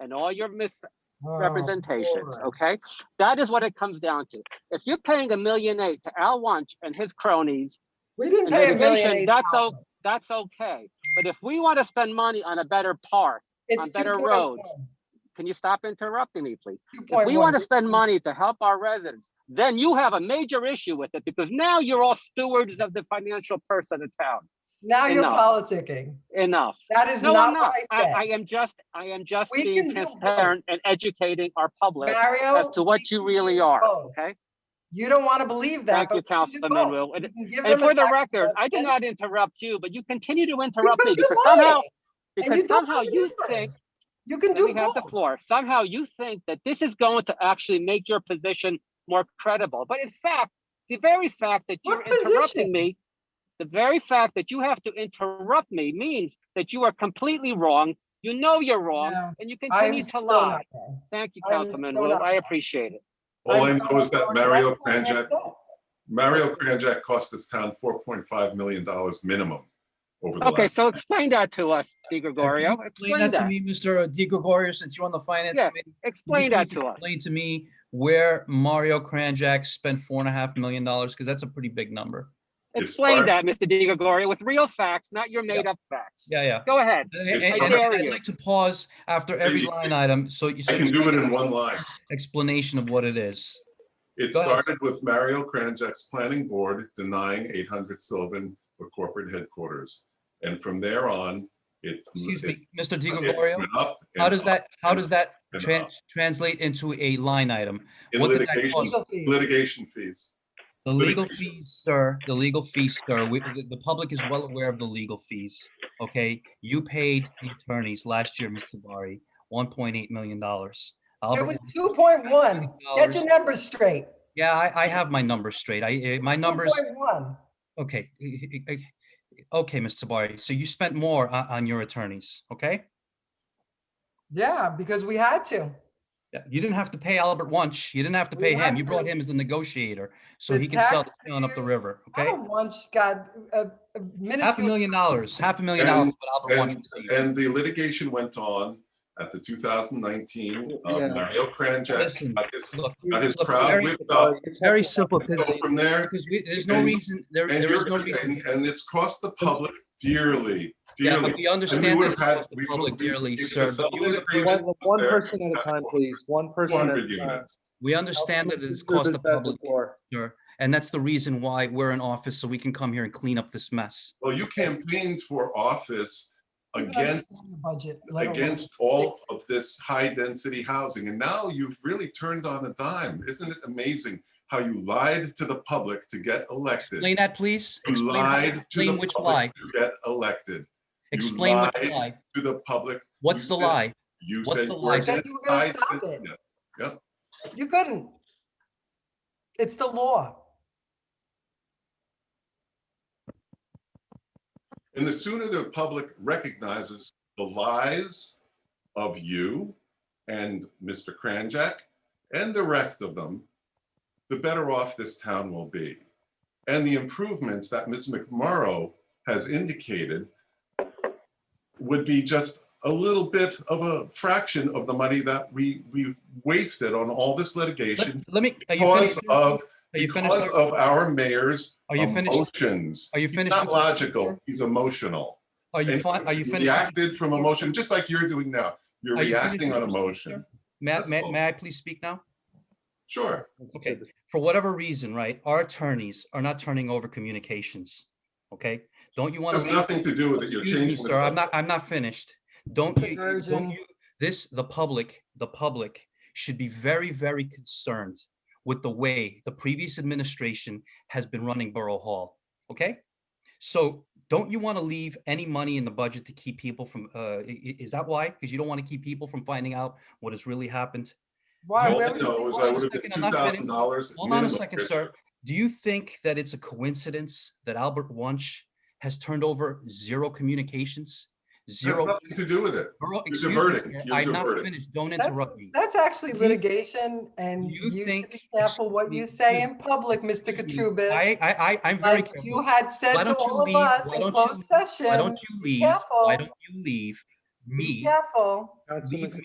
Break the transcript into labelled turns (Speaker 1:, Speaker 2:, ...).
Speaker 1: and all your
Speaker 2: Oh,
Speaker 1: misrepresentations,
Speaker 2: Lord.
Speaker 1: okay? That is what it comes down to. If you're paying a million eight to Al Wunsch and his cronies,
Speaker 2: We didn't
Speaker 1: and
Speaker 2: pay a
Speaker 1: renovation,
Speaker 2: million eight
Speaker 1: that's all-
Speaker 2: thousand.
Speaker 1: that's okay. But if we want to spend money on a better park,
Speaker 2: It's
Speaker 1: on better
Speaker 2: 2.1.
Speaker 1: roads. can you stop interrupting me, please? If
Speaker 2: 2.1.
Speaker 1: we want to spend money to help our residents, then you have a major issue with it because now you're all stewards of the financial purse of the town.
Speaker 2: Now you're
Speaker 1: enough.
Speaker 2: politicking.
Speaker 1: Enough.
Speaker 2: That is
Speaker 1: No, I'm
Speaker 2: not
Speaker 1: not.
Speaker 2: what I
Speaker 1: I,
Speaker 2: said.
Speaker 1: I am just, I am just
Speaker 2: We
Speaker 1: being
Speaker 2: can do both.
Speaker 1: transparent and educating our public as
Speaker 2: Mario.
Speaker 1: to
Speaker 2: we
Speaker 1: what you
Speaker 2: can
Speaker 1: really
Speaker 2: do
Speaker 1: are,
Speaker 2: both.
Speaker 1: okay?
Speaker 2: You don't want to believe that.
Speaker 1: Thank you,
Speaker 2: but we can do
Speaker 1: Councilman
Speaker 2: both.
Speaker 1: Wu. And-
Speaker 2: We can give
Speaker 1: And
Speaker 2: them
Speaker 1: for
Speaker 2: an
Speaker 1: the
Speaker 2: actual
Speaker 1: record, I did
Speaker 2: budget
Speaker 1: not interrupt you, but you continue to interrupt me
Speaker 2: you're
Speaker 1: because somehow,
Speaker 2: lying, and you
Speaker 1: because
Speaker 2: don't
Speaker 1: somehow
Speaker 2: do
Speaker 1: you
Speaker 2: numbers.
Speaker 1: think
Speaker 2: You can
Speaker 1: Let
Speaker 2: do
Speaker 1: me have the
Speaker 2: both.
Speaker 1: floor. Somehow you think that this is going to actually make your position more credible. But in fact, the very fact that you're
Speaker 2: What position?
Speaker 1: interrupting me, the very fact that you have to interrupt me means that you are completely wrong. You know you're wrong
Speaker 2: No,
Speaker 1: and you
Speaker 2: I am
Speaker 1: continue to
Speaker 2: still
Speaker 1: lie.
Speaker 2: not wrong.
Speaker 1: Thank you,
Speaker 2: I am
Speaker 1: Councilman
Speaker 2: still
Speaker 1: Wu.
Speaker 2: not
Speaker 1: I
Speaker 2: wrong.
Speaker 1: appreciate it.
Speaker 3: All I
Speaker 2: I'm
Speaker 3: know
Speaker 2: still
Speaker 3: is that
Speaker 2: not wrong.
Speaker 3: Mario
Speaker 2: That's what I
Speaker 3: Kranjak,
Speaker 2: said.
Speaker 3: Mario Kranjak cost this town $4.5 million minimum over the
Speaker 1: Okay,
Speaker 3: last.
Speaker 1: so explain that to us, Di
Speaker 4: Can you
Speaker 1: Gregorio.
Speaker 4: Explain
Speaker 1: Explain
Speaker 4: that to
Speaker 1: that.
Speaker 4: me, Mr. Di Gregorio, since you're on the finance
Speaker 1: Yeah,
Speaker 4: committee. Can you
Speaker 1: Explain that
Speaker 4: please
Speaker 1: to us.
Speaker 4: Explain to me where Mario Kranjak spent four and a half million dollars, because that's a pretty big number.
Speaker 3: It's
Speaker 1: Explain
Speaker 3: part-
Speaker 1: that, Mr. Di Gregorio, with real facts, not your made up facts.
Speaker 4: Yeah, yeah.
Speaker 1: Go ahead.
Speaker 4: And-
Speaker 3: It's
Speaker 4: and-
Speaker 1: part-
Speaker 4: and
Speaker 1: I dare
Speaker 4: I'd
Speaker 1: you.
Speaker 4: like to pause after every line item, so you. so
Speaker 3: I can
Speaker 4: you
Speaker 3: do it
Speaker 4: get
Speaker 3: in one line.
Speaker 4: Explanation of what it is.
Speaker 3: It
Speaker 4: Go ahead.
Speaker 3: started with Mario Kranjak's planning board denying 800 Sylvan for corporate headquarters. And from there on, it.
Speaker 4: Excuse
Speaker 3: it-
Speaker 4: me, Mr. Di
Speaker 3: it
Speaker 4: Gregorio,
Speaker 3: went up
Speaker 4: how
Speaker 3: and
Speaker 4: does
Speaker 3: up
Speaker 4: that, how
Speaker 3: and
Speaker 4: does that
Speaker 3: and uh,
Speaker 4: tran-
Speaker 3: up.
Speaker 4: translate into a line item?
Speaker 3: In
Speaker 4: what did that
Speaker 3: litigation,
Speaker 2: Legal fees.
Speaker 3: litigation fees.
Speaker 4: The legal
Speaker 3: Litigation.
Speaker 4: fees, sir, the legal fees, sir, we, the, the public is well aware of the legal fees, okay? You paid the attorneys last year, Mr. Sabari, one point eight million dollars.
Speaker 2: It was two point one. Get your numbers straight.
Speaker 4: Yeah, I, I have my numbers straight. I, eh, my numbers,
Speaker 2: 2.1.
Speaker 4: okay. eh, eh, eh, Okay, Mr. Sabari, so you spent more on, on your attorneys, okay?
Speaker 2: Yeah, because we had to.
Speaker 4: Yeah, You didn't have to pay Albert Wunsch. You didn't have to
Speaker 2: We
Speaker 4: pay him.
Speaker 2: had
Speaker 4: You brought
Speaker 2: to.
Speaker 4: him as a negotiater, so
Speaker 2: The Oh,
Speaker 4: he can sell the town up the
Speaker 2: taxpayers-
Speaker 4: river,
Speaker 2: I
Speaker 4: okay?
Speaker 2: don't want, God, a a
Speaker 4: Half a
Speaker 2: minuscule.
Speaker 4: million dollars, half a million dollars,
Speaker 3: And-
Speaker 4: what Albert Wunsch
Speaker 3: And,
Speaker 4: received.
Speaker 3: and the litigation went on at the 2019, uh,
Speaker 5: Yeah.
Speaker 3: Mario
Speaker 4: Listen,
Speaker 3: Kranjak got his-
Speaker 4: Look,
Speaker 3: got his
Speaker 4: look,
Speaker 3: crowd
Speaker 4: very-
Speaker 3: whipped up.
Speaker 4: It's very simple because,
Speaker 3: So from there,
Speaker 4: because we, there's no
Speaker 3: and-
Speaker 4: reason, there,
Speaker 3: and
Speaker 4: there is
Speaker 3: you're,
Speaker 4: no reason.
Speaker 3: and, and it's cost the public dearly,
Speaker 4: Yeah, but
Speaker 3: dearly.
Speaker 4: we understand
Speaker 3: would've
Speaker 4: that it's
Speaker 3: had-
Speaker 4: cost
Speaker 3: we would've-
Speaker 4: the public
Speaker 3: we-
Speaker 4: dearly,
Speaker 3: if the
Speaker 4: sir, but you
Speaker 3: public
Speaker 4: would've-
Speaker 3: agreed-
Speaker 5: One, one
Speaker 3: there.
Speaker 5: person at a time, please. One person at
Speaker 3: 400
Speaker 5: a time.
Speaker 3: units.
Speaker 4: we understand that it has cost the public, sir. And that's the reason why we're in office, so we can come here and clean up this mess.
Speaker 3: Well, you campaigned for office
Speaker 2: You don't
Speaker 3: against,
Speaker 2: understand the budget, let alone-
Speaker 3: against all of this high-density housing, and now you've really turned on a dime. Isn't it amazing how you lied to the public to get elected?
Speaker 4: Explain that, please.
Speaker 3: You
Speaker 4: Explain how-
Speaker 3: lied to
Speaker 4: Explain
Speaker 3: the
Speaker 4: which lie.
Speaker 3: public to get elected, You
Speaker 4: Explain which
Speaker 3: lied.
Speaker 4: lie.
Speaker 3: to the public.
Speaker 4: What's
Speaker 3: You
Speaker 4: the
Speaker 3: said-
Speaker 4: lie?
Speaker 3: You
Speaker 4: What's
Speaker 3: said.
Speaker 4: the
Speaker 3: you
Speaker 4: lie?
Speaker 3: were
Speaker 2: That
Speaker 3: against
Speaker 2: you were gonna
Speaker 3: high
Speaker 2: stop
Speaker 3: density. Yep.
Speaker 2: You couldn't. It's the law.
Speaker 3: And the sooner the public recognizes the lies of you and Mr. Kranjak and the rest of them, the better off this town will be. And the improvements that Ms. McMorrow has indicated would be just a little bit of a fraction of the money that we, we wasted on all this litigation
Speaker 4: Let- Let me, are you
Speaker 3: because
Speaker 4: finished? Are
Speaker 3: of,
Speaker 4: you finished?
Speaker 3: because
Speaker 4: sir?
Speaker 3: of our mayor's
Speaker 4: Are you finished?
Speaker 3: emotions.
Speaker 4: Are you
Speaker 3: He's
Speaker 4: finished
Speaker 3: Not
Speaker 4: with your-
Speaker 3: logical, he's emotional.
Speaker 4: Are you,
Speaker 3: And
Speaker 4: fi- are you
Speaker 3: he
Speaker 4: finished? with-
Speaker 3: Reacted from emotion, just like you're doing now. You're
Speaker 4: Are you finished
Speaker 3: reacting
Speaker 4: with
Speaker 3: on
Speaker 4: your
Speaker 3: emotion.
Speaker 4: sir? May, I-
Speaker 3: That's
Speaker 4: may,
Speaker 3: all.
Speaker 4: may I please speak now?
Speaker 3: Sure.
Speaker 4: Okay, for whatever reason, right, our attorneys are not turning over communications, okay? Don't you want
Speaker 3: Has
Speaker 4: to?
Speaker 3: nothing to do with it. You're
Speaker 4: Excuse me,
Speaker 3: changing the
Speaker 4: sir, I'm
Speaker 3: subject.
Speaker 4: not, I'm not finished. Don't you- you,
Speaker 2: Diversion.
Speaker 4: don't you, this, the public, the public should be very, very concerned with the way the previous administration has been running Borough Hall, okay? So don't you want to leave any money in the budget to keep people from, uh, i- i- is that why? Because you don't want to keep people from finding out what has really happened?
Speaker 2: Why?
Speaker 3: All
Speaker 2: where
Speaker 3: I
Speaker 2: was-
Speaker 3: know is
Speaker 4: hold
Speaker 3: I
Speaker 4: on a
Speaker 3: would have been two
Speaker 4: second, I'm not
Speaker 3: thousand
Speaker 4: finished.
Speaker 3: dollars.
Speaker 4: Hold on a second, sir. Do you think that it's a coincidence that Albert Wunsch has turned over zero communications?
Speaker 3: Has
Speaker 4: Zero.
Speaker 3: nothing to do with it.
Speaker 4: Bro,
Speaker 3: You're
Speaker 4: excuse me,
Speaker 3: diverting.
Speaker 4: sir,
Speaker 3: You're
Speaker 4: I'm not
Speaker 3: diverting.
Speaker 4: finished. Don't
Speaker 2: That's-
Speaker 4: interrupt me.
Speaker 2: That's actually
Speaker 4: You-
Speaker 2: litigation and
Speaker 4: you
Speaker 2: you should
Speaker 4: think-
Speaker 2: be careful what you
Speaker 4: excuse
Speaker 2: say
Speaker 4: me,
Speaker 2: in public, Mr.
Speaker 4: Excuse me. I,
Speaker 2: Katrubis.
Speaker 4: I, I- I'm very
Speaker 2: Like you
Speaker 4: careful.
Speaker 2: had said
Speaker 4: Why
Speaker 2: to
Speaker 4: don't you
Speaker 2: all of
Speaker 4: leave?
Speaker 2: us
Speaker 4: Why
Speaker 2: in
Speaker 4: don't you
Speaker 2: closed
Speaker 4: Why don't
Speaker 2: session,
Speaker 4: you leave?
Speaker 2: careful.
Speaker 4: Why don't you leave
Speaker 2: be
Speaker 4: me?
Speaker 2: careful.
Speaker 5: Councilman
Speaker 4: Leave